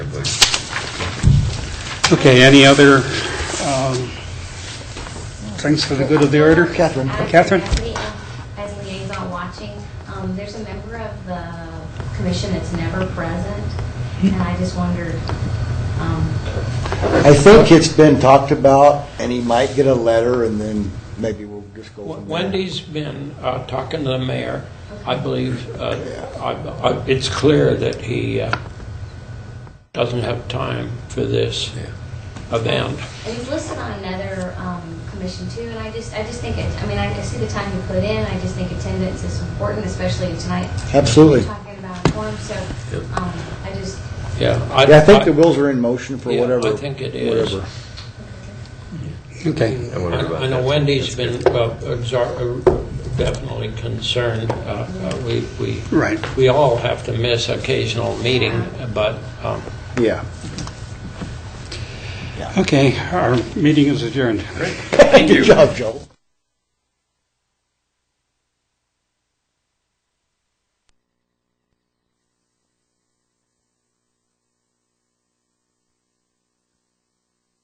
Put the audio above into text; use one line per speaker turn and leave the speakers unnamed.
Okay, any other um, things for the good of the order?
Catherine.
Catherine?
Lastly, As as liaison watching, um, there's a member of the commission that's never present, and I just wondered, um,
I think it's been talked about, and he might get a letter, and then maybe we'll just go from there.
Wendy's been uh, talking to the mayor. I believe uh, I- I- it's clear that he uh, doesn't have time for this event.
and he's listed on another um, commission too, and I just, I just think, it. I mean, I I see the time you put in, I just think attendance is important, especially tonight.
Absolutely.
We're Talking about form, so um, I just,
Yeah.
Yeah, I think the wheels are in motion for
Yeah,
whatever.
I think it is.
whatever.
Okay.
I wondered about
I know
that.
Wendy's been uh, exar- uh, definitely concerned. Uh, uh, We we
Right.
we all have to miss occasional meeting, but um,
Yeah.
Okay, our meeting is adjourned.
Good job, Joel.